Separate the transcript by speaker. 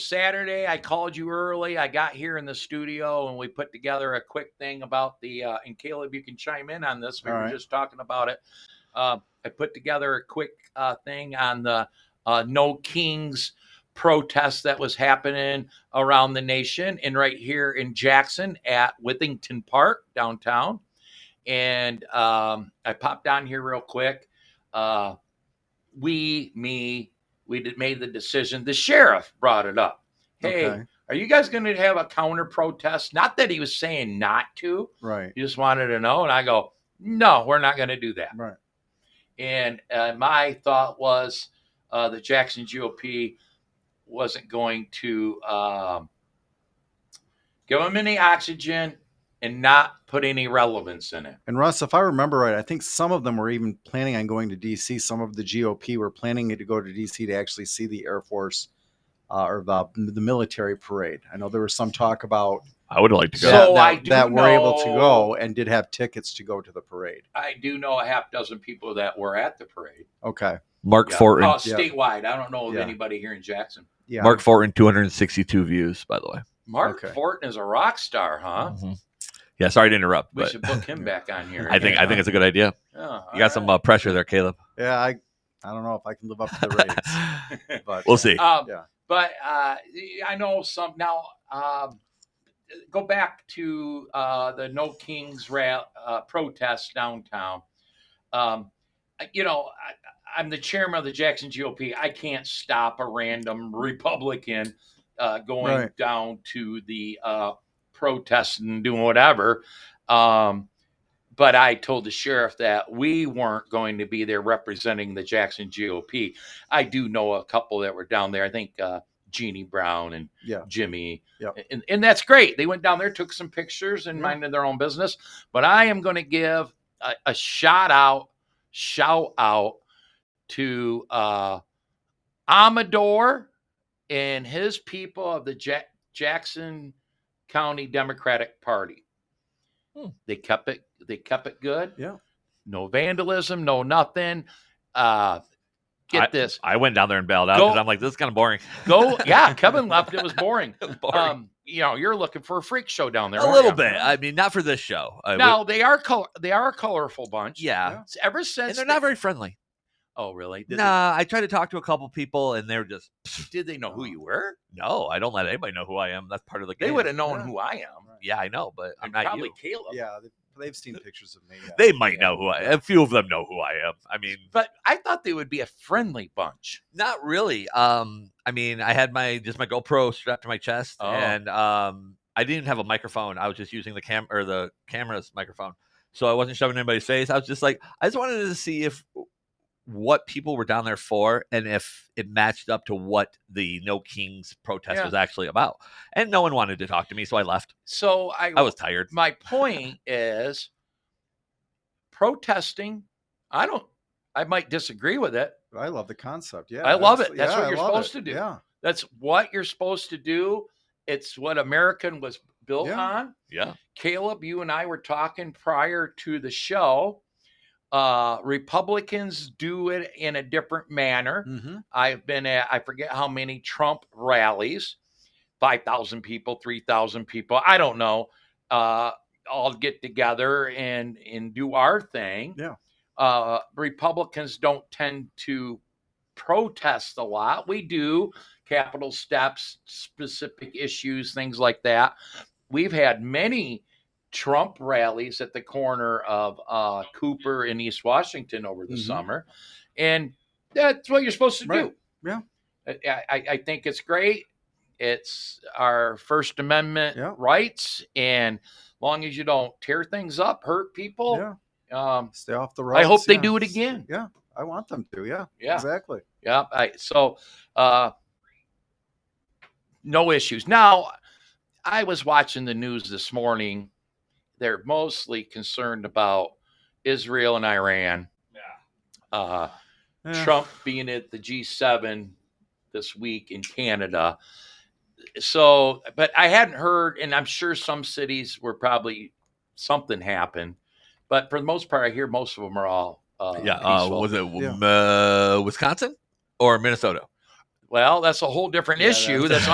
Speaker 1: Saturday, I called you early. I got here in the studio and we put together a quick thing about the, uh, and Caleb, you can chime in on this. We
Speaker 2: All
Speaker 1: were
Speaker 2: right.
Speaker 1: just talking about it. Uh, I put together a quick uh, thing on the uh, No Kings protest that was happening around the nation and right here in Jackson at Withington Park downtown. And um, I popped on here real quick. Uh, we, me, we did, made the decision. The sheriff brought it up. Hey,
Speaker 2: Okay.
Speaker 1: are you guys going to have a counter protest? Not that he was saying not to,
Speaker 2: Right.
Speaker 1: he just wanted to know. And I go, no, we're not going to do that.
Speaker 2: Right.
Speaker 1: And uh, my thought was uh, the Jackson GOP wasn't going to um, give them any oxygen and not put any relevance in it.
Speaker 2: And Russ, if I remember right, I think some of them were even planning on going to DC. Some of the GOP were planning to go to DC to actually see the Air Force uh, or the, the military parade. I know there was some talk about
Speaker 3: I would like to go.
Speaker 1: So-
Speaker 2: that,
Speaker 1: I
Speaker 2: that-
Speaker 1: do
Speaker 2: that were able to
Speaker 1: know-
Speaker 2: go and did have tickets to go to the parade.
Speaker 1: I do know a half dozen people that were at the parade.
Speaker 2: Okay.
Speaker 3: Mark
Speaker 1: Yeah.
Speaker 3: Fortin.
Speaker 1: Uh,
Speaker 2: Yeah.
Speaker 1: statewide. I don't know of
Speaker 2: Yeah.
Speaker 1: anybody here in Jackson.
Speaker 2: Yeah.
Speaker 3: Mark Fortin, 262 views, by the way.
Speaker 1: Mark
Speaker 2: Okay.
Speaker 1: Fortin is a rock star, huh?
Speaker 3: Mhm. Yeah, sorry to interrupt,
Speaker 1: We
Speaker 3: but
Speaker 1: should book him back on here. Oh,
Speaker 3: I think I think it's a good idea. You got some uh, pressure there, Caleb.
Speaker 2: Yeah. I, I don't know if I can live up to the ratings, but
Speaker 3: we'll see.
Speaker 1: Um,
Speaker 2: Yeah.
Speaker 1: But uh, I know some now. Um, go back to uh, the No Kings ra- uh, protest downtown. Um, I- you know, I, I'm the chairman of the Jackson GOP. I can't stop a random Republican uh, going
Speaker 2: Right.
Speaker 1: down to the uh, protest and doing whatever. Um, but I told the sheriff that we weren't going to be there representing the Jackson GOP. I do know a couple that were down there. I think uh, Jeannie Brown and
Speaker 2: Yeah.
Speaker 1: Jimmy.
Speaker 2: Yep.
Speaker 1: And, and that's great. They went down there, took some pictures, and
Speaker 2: Yeah.
Speaker 1: minded their own business. But I am going to give a, a shout out, shout out to uh, Amador and his people of the Jack- Jackson County Democratic Party.
Speaker 3: Hmm.
Speaker 1: They kept it. They kept it good.
Speaker 2: Yeah.
Speaker 1: No vandalism. No nothing. Uh, get this.
Speaker 3: I went down there and bailed out
Speaker 1: Go-
Speaker 3: because I'm like, this is kind of boring.
Speaker 1: Go. Yeah. Kevin left. It was boring.
Speaker 3: It was boring.
Speaker 1: Um, you know, you're looking for a freak show down there.
Speaker 3: a
Speaker 1: aren't
Speaker 3: little
Speaker 1: ya?
Speaker 3: bit. I mean, not for this show. I would-
Speaker 1: Now they are color. They are a colorful bunch.
Speaker 3: yeah.
Speaker 2: yeah.
Speaker 1: It's Ever
Speaker 3: And
Speaker 1: since
Speaker 3: they're
Speaker 1: they-
Speaker 3: not very friendly.
Speaker 1: oh, really? Did,
Speaker 3: Nah, I tried to talk to a couple people and they're just,
Speaker 1: they, did they know who you were?
Speaker 3: no, I don't let anybody know who I am. That's part of the game.
Speaker 1: They would have known
Speaker 2: Yeah.
Speaker 1: who I am.
Speaker 3: Yeah, I know, but I'm
Speaker 1: And
Speaker 3: not
Speaker 1: probably
Speaker 3: you.
Speaker 1: Caleb.
Speaker 2: yeah. They've, they've seen pictures of me. yeah.
Speaker 3: They might
Speaker 2: Yeah.
Speaker 3: know who I. A few of them know who I am. I mean,
Speaker 1: But I thought they would be a friendly bunch.
Speaker 3: not really. Um, I mean, I had my just my GoPro strapped to my chest,
Speaker 1: Oh.
Speaker 3: and um, I didn't have a microphone. I was just using the cam or the camera's microphone, so I wasn't shoving anybody's face. I was just like, I just wanted to see if what people were down there for and if it matched up to what the No Kings protest
Speaker 1: Yeah.
Speaker 3: was actually about. And no one wanted to talk to me, so I left.
Speaker 1: So I,
Speaker 3: I was tired.
Speaker 1: my point is protesting. I don't. I might disagree with it.
Speaker 2: But I love the concept. Yeah.
Speaker 1: I love
Speaker 2: that's-
Speaker 1: it. That's what
Speaker 2: I
Speaker 1: you're
Speaker 2: love
Speaker 1: supposed to do.
Speaker 2: Yeah.
Speaker 1: That's what you're supposed to do. It's what American was built
Speaker 2: Yeah.
Speaker 1: on.
Speaker 3: Yeah,
Speaker 1: Caleb, you and I were talking prior to the show. Uh, Republicans do it in a different manner.
Speaker 2: Mm-hmm.
Speaker 1: I've been at, I forget how many Trump rallies 5,000 people, 3,000 people. I don't know. Uh, all get together and, and do our thing.
Speaker 2: Yeah.
Speaker 1: Uh, Republicans don't tend to protest a lot. We do capital steps, specific issues, things like that. We've had many Trump rallies at the corner of uh, Cooper in East Washington over the
Speaker 2: Mhm.
Speaker 1: summer. And that's what you're supposed to
Speaker 2: Right.
Speaker 1: do.
Speaker 2: Yeah.
Speaker 1: I, I, I think it's great. It's our First Amendment
Speaker 2: Yeah.
Speaker 1: rights. And long as you don't tear things up, hurt people,
Speaker 2: Yeah.
Speaker 1: um,
Speaker 2: Stay off the road.
Speaker 1: I hope they do it again.
Speaker 2: Yeah. I want them to. Yeah.
Speaker 1: Yeah.
Speaker 2: Exactly.
Speaker 1: Yeah. I, so, uh, no issues. Now, I was watching the news this morning. They're mostly concerned about Israel and Iran. Yeah. Uh,
Speaker 2: Yeah.
Speaker 1: Trump being at the G7 this week in Canada. So, but I hadn't heard, and I'm sure some cities were probably something happened, but for the most part, I hear most of them are all. Uh,
Speaker 3: yeah. Uh,
Speaker 1: peaceful.
Speaker 3: was it uh, Wisconsin or Minnesota?
Speaker 1: well, that's a whole different
Speaker 2: Yeah,
Speaker 1: issue.
Speaker 2: that's-
Speaker 1: That's